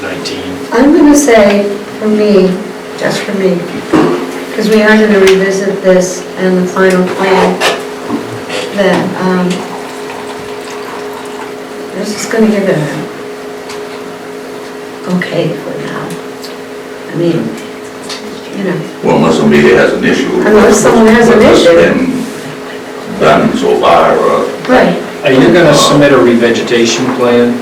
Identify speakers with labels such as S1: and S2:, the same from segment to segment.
S1: 19.
S2: I'm going to say, for me, just for me, because we are going to revisit this and the final plan, that, um, this is going to give it an okay for now. I mean, you know,
S3: Well, unless somebody has an issue.
S2: Unless someone has an
S3: What's
S2: issue.
S3: been Done so far, uh,
S2: right.
S1: Are you going to submit a revegetation plan?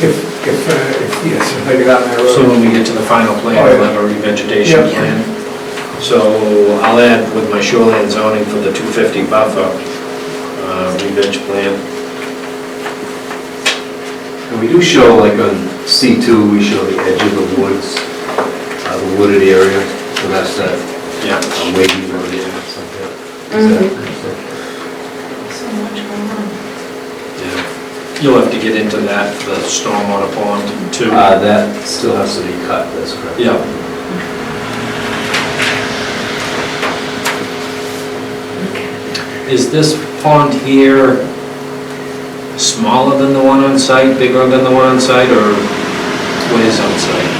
S4: If, if, uh, if- yes, if I get out in that
S1: So
S4: road.
S1: when we get to the final plan,
S4: Oh, yeah.
S1: we'll have a revegetation
S4: Yeah.
S1: plan. So I'll add with my shoreline zoning for the 250 buffer, uh, reveg plan.
S5: And we do show, like on C2, we show the edge of the woods, uh, the wooded area, so that's that
S1: Yeah.
S5: uh, wavy road area,
S2: Mhm.
S5: something like that.
S6: So much going on.
S1: yeah. You'll have to get into that, the stormwater pond too.
S5: Uh, That still has to be cut, that's correct.
S1: Yeah. Is this pond here smaller than the one on site, bigger than the one on site, or what is on site?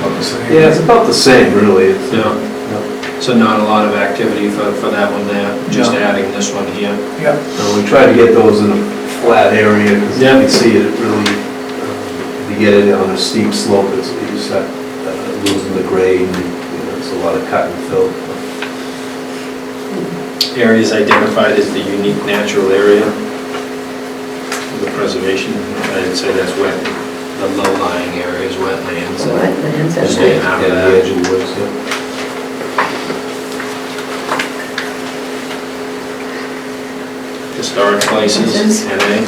S4: About the same.
S5: Yeah, it's about the same, really. It's-
S1: Yeah,
S5: No,
S1: so not a lot of activity for, for that one there, just
S5: No.
S1: adding this one here.
S4: Yeah,
S5: No, uh, we try to get those in a flat area, because you
S1: Yeah.
S5: can see it really, um, if you get it on a steep slope, it's, you start uh, losing the grade, and, you know, it's a lot of cut and fill.
S1: Areas identified as the unique natural area for the preservation, I'd say that's wet, the low-lying areas, wetlands. and-
S2: Wetlands,
S1: Just
S2: okay.
S1: getting out of
S5: Yeah,
S1: that.
S5: the edge of the woods, yeah.
S1: Historic places,
S2: Places.
S1: NA.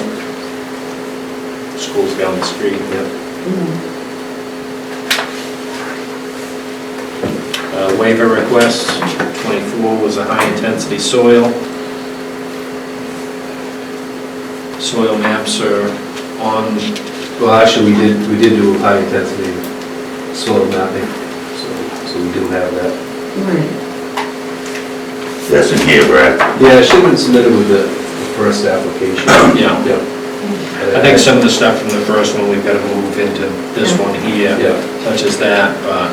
S1: Schools down the street, yep.
S2: Mm.
S1: Uh, Waiver requests, 24 was a high-intensity soil. Soil maps are on,
S5: Well, actually, we did, we did do high intensity soil mapping, so, so we do have that.
S2: Right.
S3: that's in here, Brad.
S5: Yeah, it should have been submitted with the the first application.
S1: yeah. I think some of the stuff from the first one, we've got to move into this one here,
S5: Yeah.
S1: such as that, but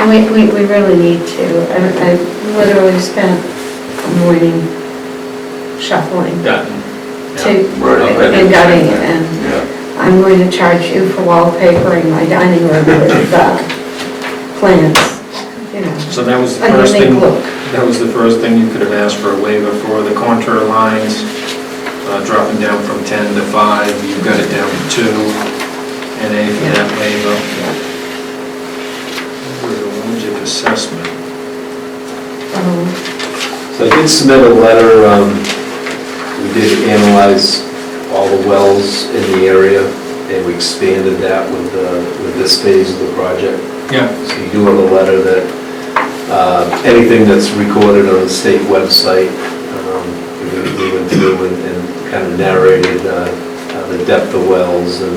S2: And we, we, we really need to, I, I literally spent a morning shuffling.
S1: gotten.
S2: to,
S3: Right, I
S2: and
S3: didn't
S2: dining,
S3: say that.
S2: and
S3: Yeah.
S2: I'm going to charge you for wallpapering my dining room with uh, plants, you know.
S1: So that was the
S2: A
S1: first
S2: unique
S1: thing,
S2: look.
S1: that was the first thing you could have asked for a waiver for, the contour lines, uh, dropping down from 10 to 5, you've got it down to 2, NA for that waiver. Logic assessment,
S2: Um,
S5: So I did submit a letter, um, we did analyze all the wells in the area, and we expanded that with, uh, with this phase of the project.
S1: yeah,
S5: So you do have a letter that, uh, anything that's recorded on the state website, um, we we went through and- and kind of narrated uh, uh, the depth of wells and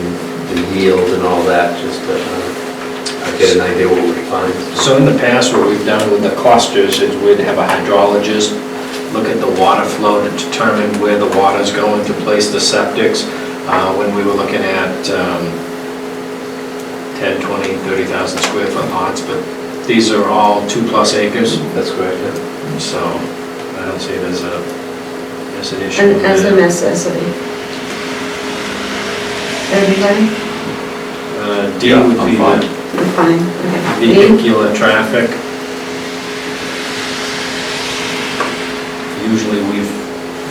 S5: the yield and all that, just to uh, get an idea what we find.
S1: so in the past, what we've done with the clusters is we'd have a hydrologist look at the water flow to determine where the water's going to place the septics. Uh, When we were looking at um, 10, 20, 30,000 square foot lots, but these are all two-plus acres,
S5: That's correct, yeah.
S1: so I don't see it as a, as an issue.
S2: And as a necessity. Everybody?
S1: Uh, D
S3: Yeah,
S1: would
S3: I'm
S1: be
S3: fine.
S1: the
S2: We're fine, okay. Me?
S1: vehicular traffic. Usually we've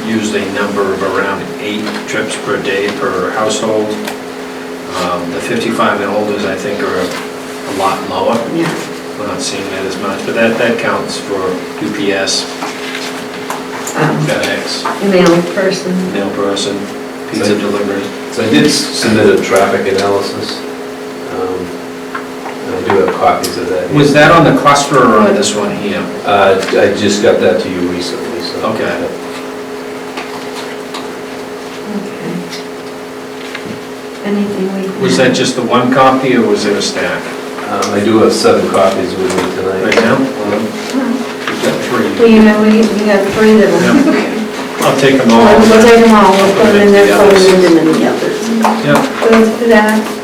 S1: used a number of around eight trips per day per household. Um, The 55 and olders, I think, are a lot lower.
S2: Yeah,
S1: We're not seeing that as much, but that, that counts for UPS,
S2: um,
S1: FedEx.
S2: male person,
S1: mail person, pizza
S5: Same.
S1: delivery.
S5: So I did s- submit a traffic analysis. Um, and I do have copies of that. here.
S1: Was that on the cluster or on this one here?
S5: Uh, I just got that to you recently, so.
S1: Okay.
S2: okay. Anything we can...
S1: Was that just the one copy or was it a stack?
S5: Um, I do have seven copies with me tonight.
S1: Right now? We've got
S2: Well,
S1: three.
S2: you know, we, we have three that are...
S1: I'll take them all.
S2: We'll take them all, we'll put them in there, put them in the others.
S1: Yeah,
S2: Go through that,